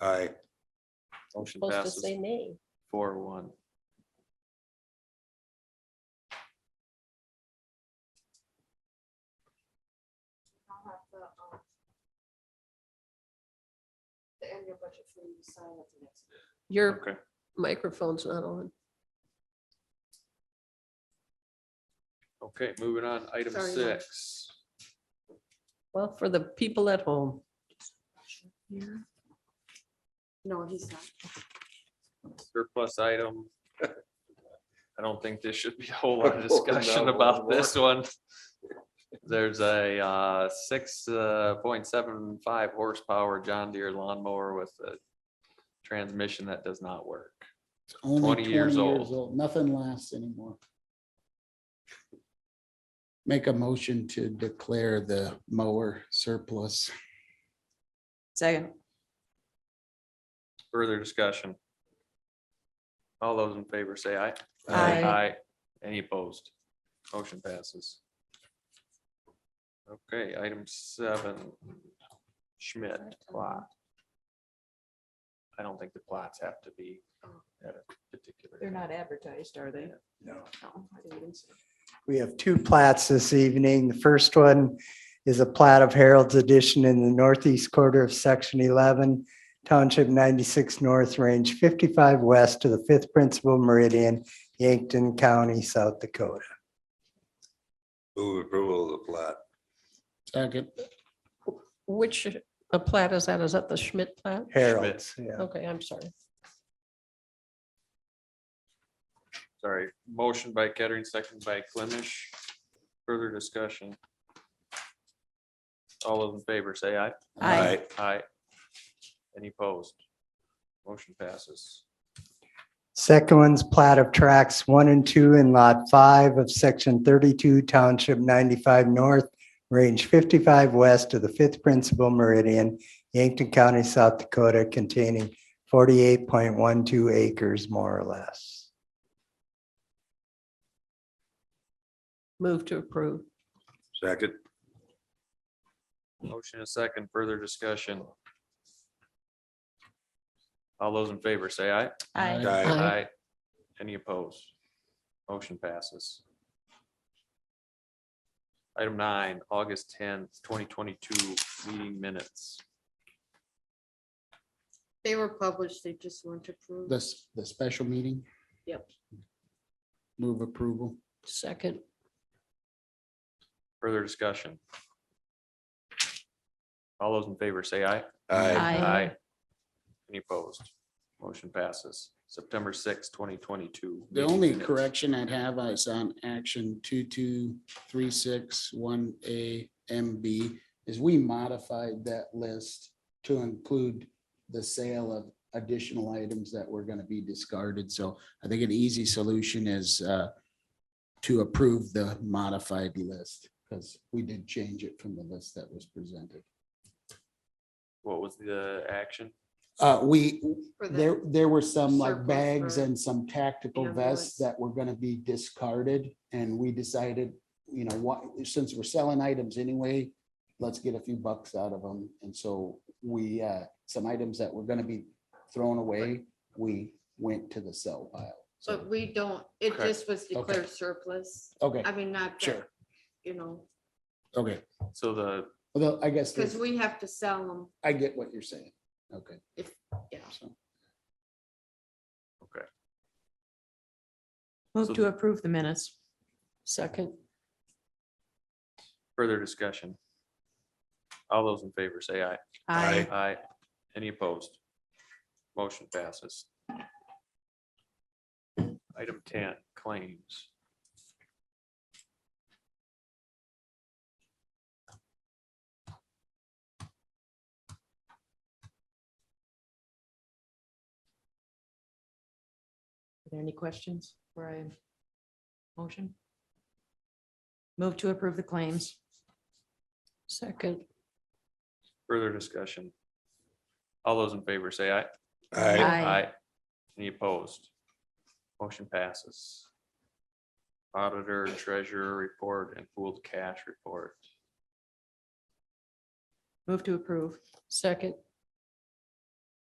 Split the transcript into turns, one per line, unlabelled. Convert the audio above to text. Aye.
Motion
Supposed to
passes
say nay.
four one.
I'll have the, um, the annual budget for you to sign at the next. meeting.
Your
Okay,
microphone's not on.
okay, moving on, item
Sorry, Mike.
six.
Well, for the people at home,
No, he's not.
surplus item. I don't think there should be a whole lot of
Oh, no,
discussion
one
about
more.
this one. There's a uh, six uh, point seven five horsepower John Deere lawnmower with a transmission that does not work.
It's only
20 years old.
Nothing lasts anymore. Make a motion to declare the mower surplus.
Second.
Further discussion? All those in favor say aye.
Aye.
Aye. Any opposed? Motion passes. Okay, item seven. Schmidt plot. I don't think the plots have to be at a particular.
They're not advertised, are they?
No, I didn't even see.
We have two plats this evening. The first one is a plat of Harold's Edition in the northeast quarter of section eleven, township ninety-six north, range fifty-five west to the fifth principal meridian, Yankton County, South Dakota.
Move approval of the plat.
Second,
which a plat is that? Is that the Schmidt plat?
Harold's, yeah.
Okay, I'm sorry.
Sorry, motion by Kettering, second by Clemish. Further discussion. All those in favor say aye.
Aye.
Aye. Any opposed? Motion passes.
Second one's plat of tracks one and two in lot five of section thirty-two, township ninety-five north, range fifty-five west to the fifth principal meridian, Yankton County, South Dakota, containing forty-eight point one two acres more or less.
Move to approve.
Second.
Motion and second, further discussion. All those in favor say aye.
Aye.
Aye.
Aye.
Any opposed? Motion passes. Item nine, August tenth, twenty twenty-two, meeting minutes.
They were published, they just weren't approved.
the, s- the special meeting.
Yep.
Move approval.
Second,
Further discussion. All those in favor say aye.
Aye.
Aye.
Any opposed? Motion passes. September sixth, twenty twenty-two.
The only correction I'd have is on action two, two, three, six, one, A, M, B, is we modified that list to include the sale of additional items that were gonna be discarded. So I think an easy solution is uh, to approve the modified list, because we did change it from the list that was presented.
What was the action?
Uh, we,
For the-
there, there were some like
Surplus
bags
for
and some tactical
ambulance.
vests that were gonna be discarded. And we decided, you know, what, since we're selling items anyway, let's get a few bucks out of them. And so we, uh, some items that were gonna be thrown away, we went to the sell pile.
But
So,
we don't, it
Correct.
just was declared surplus.
okay,
I mean, not that,
Sure.
you know,
okay.
So the
Although I guess,
because
there's-
we have to sell them.
I get what you're saying. Okay.
If- yeah.
So,
So-
Move to approve the minutes.
second,
further discussion. All those in favor say aye.
Aye.
Aye. Any opposed? Motion passes. Item ten, claims.
Are there any questions for a motion? Move to approve the claims.
second,
Further discussion. All those in favor say aye.
Aye.
Aye.
Any opposed? Motion passes. Auditor, treasurer report and pooled cash report.
Move to approve.
second.